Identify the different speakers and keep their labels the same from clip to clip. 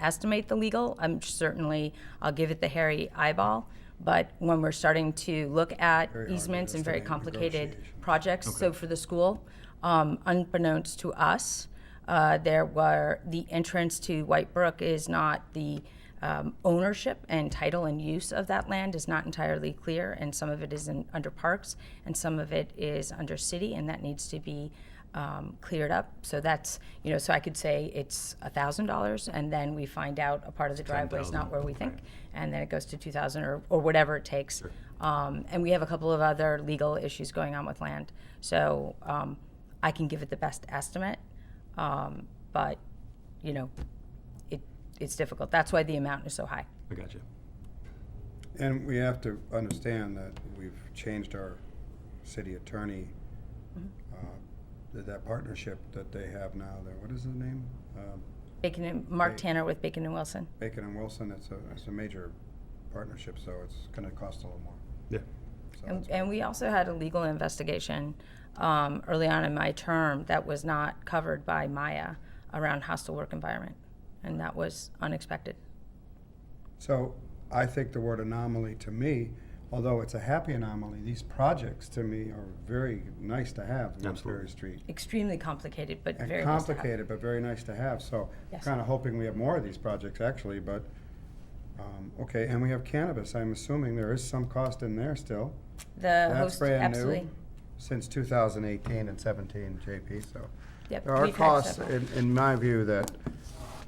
Speaker 1: estimate the legal. I'm certainly, I'll give it the hairy eyeball. But when we're starting to look at
Speaker 2: hard to
Speaker 1: easements and very
Speaker 2: estimate
Speaker 1: complicated
Speaker 2: negotiations.
Speaker 1: projects, so for the school, um, unbeknownst to us, uh, there were, the entrance to White Brook is not the um, ownership and title and use of that land is not entirely clear, and some of it is in, under parks, and some of it is under city, and that needs to be um, cleared up. So that's, you know, so I could say it's a thousand dollars, and then we find out a part of the driveway is not where we think, and then it goes to two thousand or, or whatever it takes. Um, and we have a couple of other legal issues going on with land, so um, I can give it the best estimate, um, but you know, it it's difficult. That's why the amount is so high.
Speaker 3: I got you.
Speaker 2: And we have to understand that we've changed our city attorney, uh, that that partnership that they have now, that, what is the name? Um,
Speaker 1: Bacon and Mark
Speaker 2: Right.
Speaker 1: Tanner with Bacon and Wilson.
Speaker 2: Bacon and Wilson, it's a, it's a major partnership, so it's gonna cost a little more.
Speaker 3: Yeah.
Speaker 2: So
Speaker 1: And,
Speaker 2: it's-
Speaker 1: and we also had a legal investigation um, early on in my term that was not covered by Maya around hostile work environment, and that was unexpected.
Speaker 2: So I think the word anomaly to me, although it's a happy anomaly, these projects to me are very nice to have,
Speaker 3: Absolutely.
Speaker 2: Woodbury Street.
Speaker 1: Extremely complicated, but
Speaker 2: And
Speaker 1: very nice to have.
Speaker 2: complicated, but very nice to have, so
Speaker 1: Yes.
Speaker 2: kind of hoping we have more of these projects actually, but, um, okay, and we have cannabis, I'm assuming there is some cost in there still.
Speaker 1: The
Speaker 2: That's
Speaker 1: host,
Speaker 2: brand new.
Speaker 1: absolutely.
Speaker 2: Since two thousand eighteen and seventeen, JP, so.
Speaker 1: Yep,
Speaker 2: There are
Speaker 1: we've had
Speaker 2: costs,
Speaker 1: several.
Speaker 2: in, in my view, that,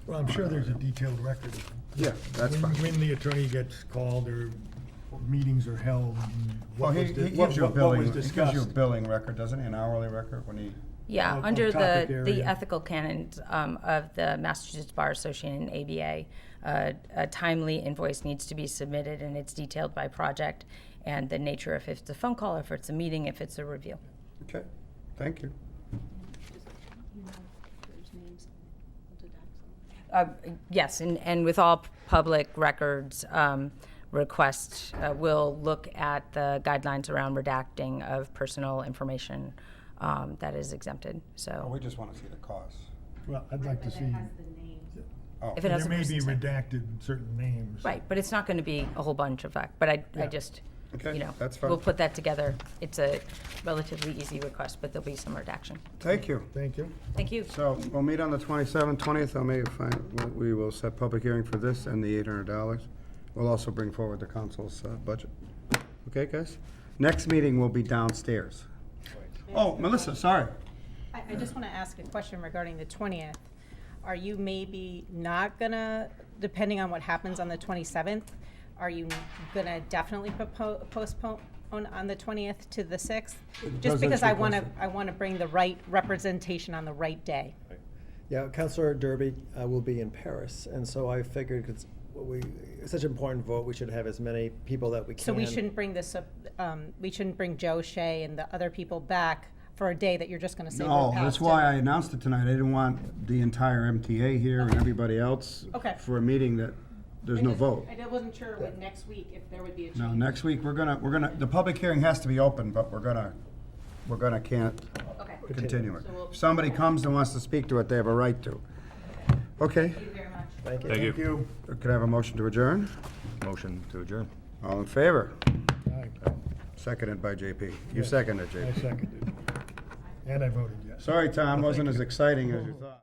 Speaker 4: Well, I'm sure there's a detailed record.
Speaker 2: yeah, that's
Speaker 4: When-
Speaker 2: fine.
Speaker 4: When the attorney gets called or meetings are held and
Speaker 2: Well,
Speaker 4: what
Speaker 2: Oh, he,
Speaker 4: was, di-
Speaker 2: he
Speaker 4: what
Speaker 2: gives you a
Speaker 4: what- what
Speaker 2: billing,
Speaker 4: was
Speaker 2: he gives you a
Speaker 4: discussed.
Speaker 2: billing record, doesn't he, an hourly record when he?
Speaker 1: Yeah,
Speaker 4: on-
Speaker 1: under
Speaker 4: on
Speaker 1: the,
Speaker 4: topic
Speaker 1: the
Speaker 4: area.
Speaker 1: ethical canons um, of the Massachusetts Bar Association and ABA, uh, a timely invoice needs to be submitted and it's detailed by project and the nature if it's a phone call, if it's a meeting, if it's a review.
Speaker 2: Okay, thank you.
Speaker 5: You know, there's names of the docs on it.
Speaker 1: Uh, Yes, and, and with all public records um, requests, uh, we'll look at the guidelines around redacting of personal information um, that is exempted,
Speaker 2: Well,
Speaker 1: so.
Speaker 2: Oh, we just wanna see the cost.
Speaker 4: Well, I'd like to see,
Speaker 2: Oh,
Speaker 1: If it has
Speaker 4: there
Speaker 1: a
Speaker 4: may be
Speaker 1: person's name.
Speaker 4: redacted certain names.
Speaker 1: Right, but it's not going to be a whole bunch of that, but I, I just,
Speaker 2: Okay,
Speaker 1: you know,
Speaker 2: that's fine.
Speaker 1: we'll put that together. It's a relatively easy request, but there'll be some redaction.
Speaker 2: Thank you.
Speaker 4: Thank you.
Speaker 1: Thank you.
Speaker 2: So we'll meet on the 27th, 20th, I may find, we will set public hearing for this and the $800. We'll also bring forward the council's uh, budget. Okay, guys? Next meeting will be downstairs. Oh, Melissa, sorry.
Speaker 6: I, I just want to ask a question regarding the twentieth. Are you maybe not gonna, depending on what happens on the twenty-seventh, are you gonna definitely propo- postpone on the twentieth to the sixth? Just because I want to, I want to bring the right representation on the right day.
Speaker 7: Yeah, Councillor Derby uh, will be in Paris, and so I figured, because we, it's such an important vote, we should have as many people that we can.
Speaker 6: So we shouldn't bring this, up, um, we shouldn't bring Joe Shea and the other people back for a day that you're just gonna say. we're
Speaker 2: No,
Speaker 6: past
Speaker 2: Oh, that's
Speaker 6: it.
Speaker 2: why I announced it tonight. I didn't want the entire MTA here and everybody else
Speaker 6: Okay.
Speaker 2: for a meeting that there's no
Speaker 6: just-
Speaker 2: vote.
Speaker 6: I wasn't sure with next week if there would be a
Speaker 2: No,
Speaker 6: change.
Speaker 2: next week, we're gonna, we're gonna, the public hearing has to be open, but we're gonna, we're gonna can't
Speaker 6: Okay,
Speaker 2: continue it.
Speaker 6: So we'll-
Speaker 2: If somebody comes and wants to speak to it, they have a right to. Okay,
Speaker 6: thank you very much.
Speaker 7: Thank you.
Speaker 3: Thank you.
Speaker 2: could I have a motion to adjourn?
Speaker 3: Motion to adjourn.
Speaker 2: All in favor?
Speaker 4: Aye.
Speaker 2: Seconded by JP. You seconded,
Speaker 4: I
Speaker 2: JP.
Speaker 4: seconded. And I voted yes.
Speaker 2: Sorry, Tom, wasn't as exciting as you thought.